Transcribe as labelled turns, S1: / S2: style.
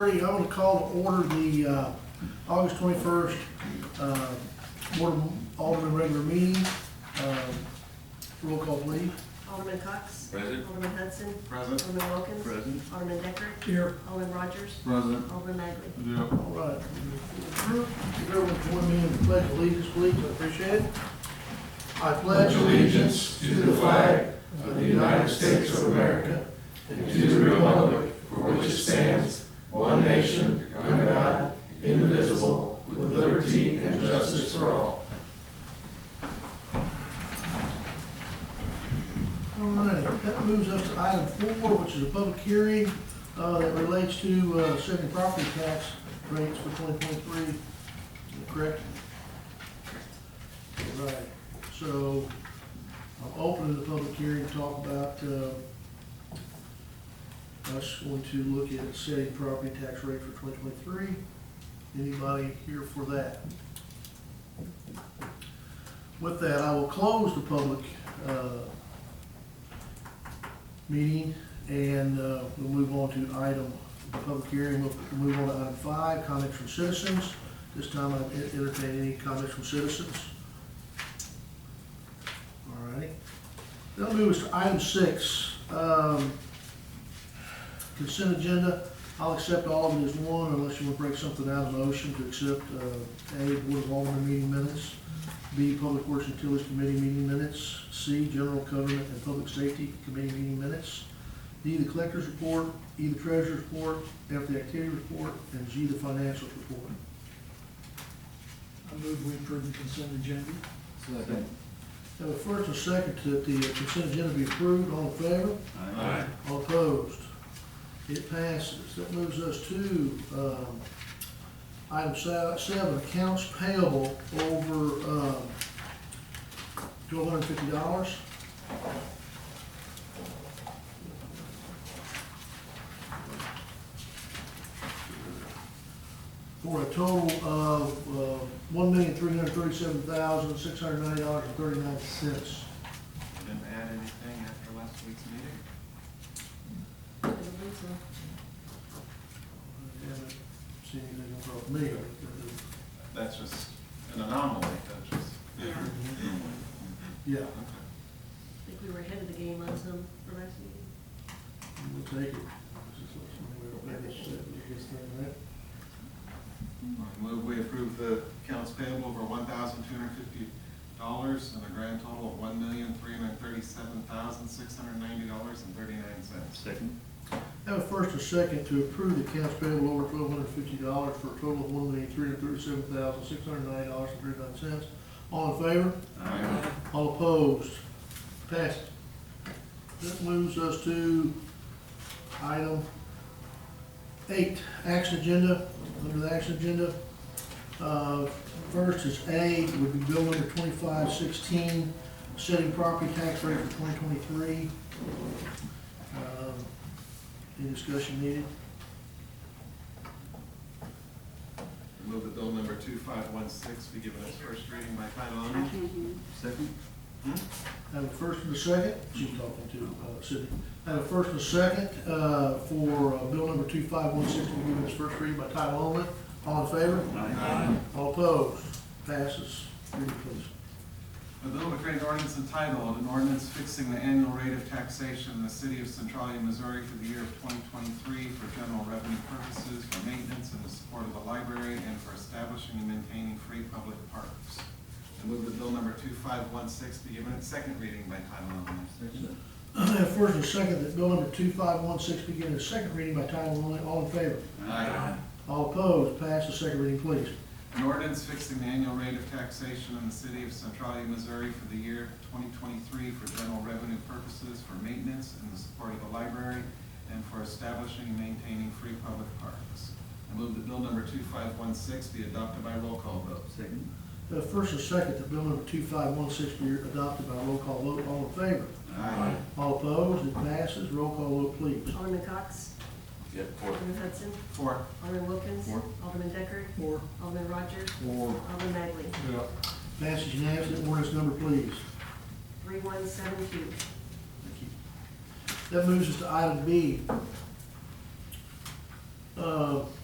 S1: thirty, I'm gonna call to order the, uh, August twenty-first, uh, Board of Alderman regular meeting. Um, Roll call please.
S2: Alderman Cox.
S3: Present.
S2: Alderman Hudson.
S3: Present.
S2: Alderman Wilkins.
S3: Present.
S2: Alderman Decker.
S1: Here.
S2: Alderman Rogers.
S3: Present.
S2: Alderman Magley.
S3: Yep.
S1: All right. If everyone join me in the pledge of allegiance, please, I appreciate it. I pledge
S4: pledge allegiance to the flag of the United States of America and to the republic for which it stands, one nation, under God, indivisible, with liberty and justice for all.
S1: All right, that moves us to item four, which is a public hearing, uh, that relates to, uh, setting property tax rates for twenty twenty-three, correct? All Right, so, I'm opening the public hearing to talk about, uh, us going to look at setting property tax rate for twenty twenty-three. Anybody here for that? With that, I will close the public, uh, meeting, and uh, we'll move on to item, the public hearing, we'll move on to item five, comments from citizens. This time I entertain any comments from citizens. All righty. That'll move us to item six, um, consent agenda. I'll accept all of it as one unless you want to break something out of motion to accept uh, A, Board of Alderman meeting minutes, B, Public Works and Utilities Committee meeting minutes. C, General Government and Public Safety Committee meeting minutes. D, the Collector's Report. E, the Treasurer's Report. F, the Activity Report. And G, the Financial Report.
S5: I move we approve the consent agenda.
S3: Second.
S1: Have a first and second that the consent agenda be approved. All in favor?
S3: Aye.
S1: All opposed? It passes. That moves us to, um, item se- seven, accounts payable over, um, twelve hundred and fifty dollars. For a total of, uh, one million, three hundred and thirty-seven thousand, six hundred and ninety dollars and thirty-nine cents.
S3: Didn't add anything after last week's meeting?
S2: I believe so.
S1: I haven't seen anything from me.
S3: That's just an anomaly, that's just.
S2: Yeah, I
S1: Yeah,
S3: Okay.
S2: think we were ahead of the game on some for last meeting.
S1: we'll take it. Maybe it's, uh, it's not that.
S3: I move we approve the accounts payable over one thousand two hundred fifty dollars and a grand total of one million three hundred thirty-seven thousand six hundred ninety dollars and thirty-nine cents. Second.
S1: Have a first and second to approve the accounts payable over twelve hundred fifty dollars for a total of one million, three hundred thirty-seven thousand, six hundred ninety dollars and thirty-nine cents. All in favor?
S3: Aye.
S1: All opposed? Passed. That moves us to item eight, action agenda, under the action agenda. Uh, First is A, would be bill number twenty-five sixteen, setting property tax rate for twenty twenty-three. Uh, Any discussion needed?
S3: Move that bill number two five one six be given its first reading by title only. Second.
S1: Have a first and a second, she's talking to uh, Sydney. Have a first and a second uh, for uh, bill number 2516 to be given its first reading by title only. All in favor?
S3: Aye.
S1: All opposed? Passes. Read it, please.
S3: A bill to create an ordinance entitled, an ordinance fixing the annual rate of taxation in the city of Centralia, Missouri for the year of twenty twenty-three for general revenue purposes, for maintenance and the support of the library, and for establishing and maintaining free public parks. I move that bill number two five one six be given its second reading by title only.
S1: Have first and second that bill number 2516 be given its second reading by title only. All in favor?
S3: Aye.
S1: All opposed? Passes. Second reading, please.
S3: An ordinance fixing the annual rate of taxation in the city of Centralia, Missouri for the year twenty twenty-three for general revenue purposes, for maintenance and the support of the library, and for establishing and maintaining free public parks. I move that bill number two five one six be adopted by roll call vote.
S6: Second.
S1: Have first and second that bill number 2516 be adopted by roll call vote. All in favor?
S3: Aye.
S1: All opposed? It passes. Roll call vote, please.
S2: Alderman Cox.
S6: Yep, four.
S2: Alderman Hudson.
S3: Four.
S2: Alderman Wilkins.
S6: Four.
S2: Alderman Decker.
S5: Four,
S2: Alderman Rogers.
S3: Four.
S2: Alderman Magley.
S1: Passes unanimously. Ordinance number, please.
S2: Three one seven two.
S1: That moves us to item B. Uh,